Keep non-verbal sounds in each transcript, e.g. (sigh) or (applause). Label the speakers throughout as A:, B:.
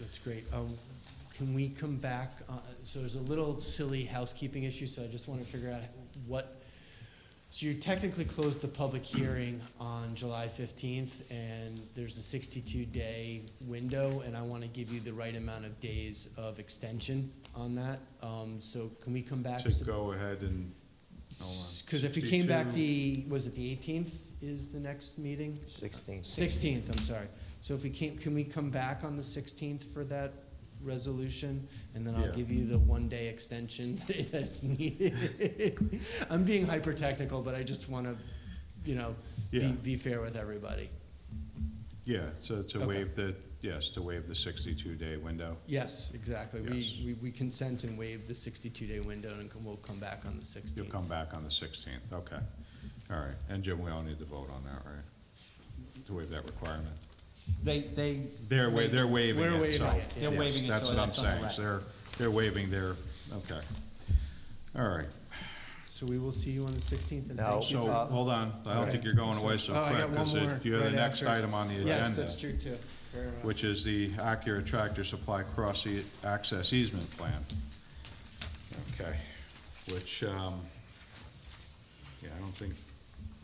A: That's great. Um, Can we come back, uh, so there's a little silly housekeeping issue, so I just want to figure out what, so you technically closed the public hearing on July 15th, and there's a 62-day window, and I want to give you the right amount of days of extension on that. Um, So can we come back?
B: To go ahead and,
A: Because if you came back the, was it the 18th is the next meeting?
C: Sixteen.
A: 16th, I'm sorry. So if we can, can we come back on the 16th for that resolution? And then I'll
B: Yeah.
A: give you the one-day extension (laughs) that's needed. (laughs) I'm being hyper-technical, but I just want to, you know,
B: Yeah.
A: be, be fair with everybody.
B: yeah, to, to
A: Okay.
B: waive the, yes, to waive the sixty-two day window.
A: Yes, exactly.
B: Yes.
A: We, we we consent and waive the 62-day window, and we'll come back on the 16th.
B: You'll come back on the sixteenth, okay. All right, and Jim, we all need to vote on that, right? To waive that requirement.
D: They, they.
B: They're wa, they're waiving
A: We're
B: it,
A: waiving
B: so.
A: it,
D: They're
B: yes,
D: waiving it,
B: That's
D: so
B: what I'm
D: that's on the
B: saying,
D: record.
B: So they're, they're waiving their, okay. All right,
A: So we will see you on the 16th, and
C: Now-
A: thank you.
B: so,
C: Uh,
B: hold on, I don't
A: okay.
B: think you're going away so
A: Oh, I
B: quick.
A: got one
B: 'cause it-
A: more
B: You're the
A: right
B: next
A: after.
B: item on the agenda.
A: Yes, that's true, too. Fair enough.
B: which is the Acura Tractor Supply Cross e- Access Easement Plan. Okay, which, um, yeah, I don't think,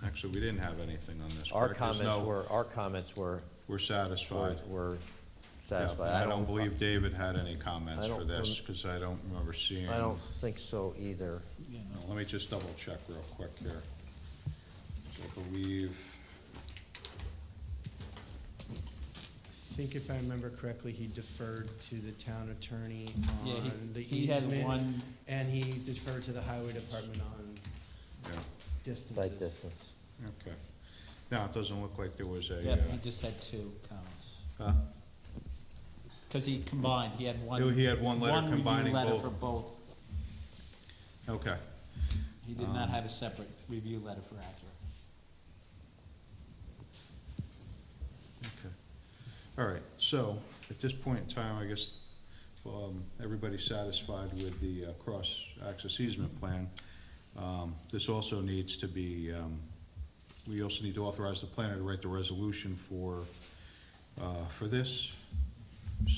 B: actually, we didn't have anything on this part.
C: Our
B: 'cause
C: comments
B: no,
C: were, our comments were,
B: We're satisfied.
C: were- were
B: Yeah,
C: satisfied.
B: I don't believe David had any comments
C: I
B: for
C: don't
B: this,
C: rem-
B: because I don't remember seeing.
C: I don't think so either.
B: Now, Let me just double check real quick here. So I believe,
A: I think if I remember correctly, he deferred to the town attorney
D: Yeah, he-
A: on the
D: he had
A: easement,
D: one-
A: and he deferred to the highway department on
B: yeah,
C: Site
A: distances.
C: distance.
B: okay. Now, it doesn't look like there was a,
D: Yeah,
B: uh,
D: he just had two counts.
B: huh?
D: Cause he combined, he had one.
B: He had one letter
D: review
B: combining
D: letter
B: both.
D: for both.
B: okay.
D: He did
B: Um,
D: not have a separate review letter for Acura.
B: Okay. All right, so at this point in time, I guess, um, everybody's satisfied with the uh, cross-access easement plan. Um, This also needs to be, um, we also need to authorize the planner to write the resolution for, uh, for this.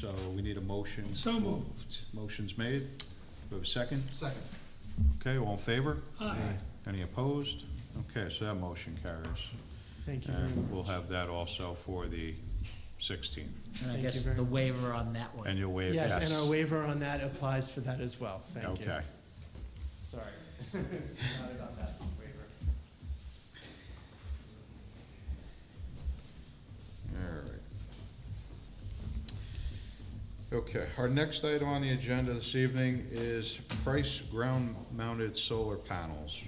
B: So we need a motion.
E: So moved.
B: Motion's made. We have a second?
E: Second.
B: Okay, all in favor?
E: Aye.
B: Any opposed? Okay, so that motion carries.
A: Thank you very
B: And we'll
A: much.
B: have that also for the sixteenth.
D: And I
A: Thank you
D: guess
A: very
D: the
A: much.
D: waiver on that
B: And
D: one.
B: you'll waive, yes.
A: Yes, and our waiver on that applies for that as well. Thank you.
B: Okay,
A: Sorry. (laughs) Not about that waiver.
B: all right. Okay, our next item on the agenda this evening is price ground-mounted solar panels.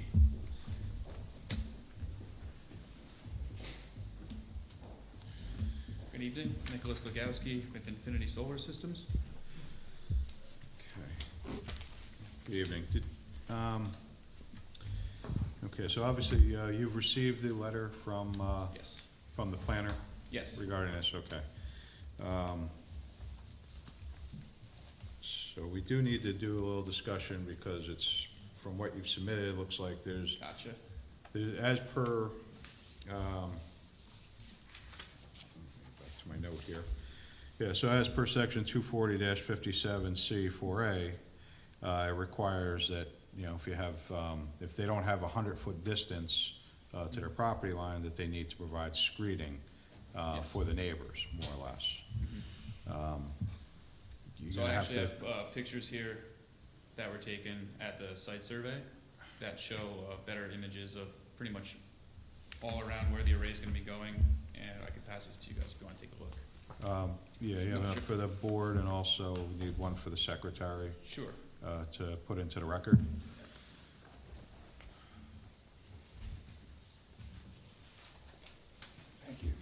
F: Good evening, Nicholas Glagowski with Infinity Solar Systems.
B: Okay. Good evening. Did- um, Okay, so obviously, uh, you've received the letter from, uh,
F: Yes,
B: from the planner
F: yes.
B: regarding this, okay. Um, So we do need to do a little discussion because it's, from what you've submitted, it looks like there's
F: Gotcha.
B: As per, um, back to my note here. Yeah, so as per section two forty fifty-seven C four A, uh, it requires that, you know, if you have, um, if they don't have a hundred-foot distance, uh, to their property line, that they need to provide screening, uh,
F: Yes. Mm-hmm.
B: for the neighbors, more or less. Um, You're
F: So I
B: gonna have
F: actually
B: to,
F: have uh, pictures here that were taken at the site survey that show uh, better images of pretty much all around where the array's gonna be going, and I can pass this to you guys if you wanna take a look.
B: um, yeah, you have
F: No,
B: enough
F: sure.
B: for the board and also we need one for the secretary,
F: Sure.
B: uh, to put into the record.
E: Thank you.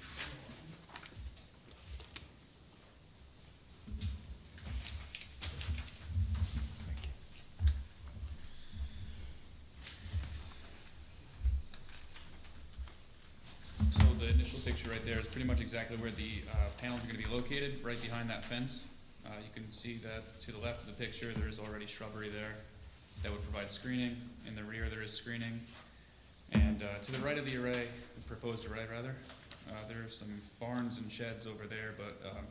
F: So the initial picture right there is pretty much exactly where the uh, panels are gonna be located, right behind that fence. Uh, You can see that to the left of the picture, there is already shrubbery there that would provide screening. In the rear, there is screening. And uh, to the right of the array, the proposed array rather, uh, there are some barns and sheds over there, but um,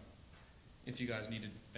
F: if you guys needed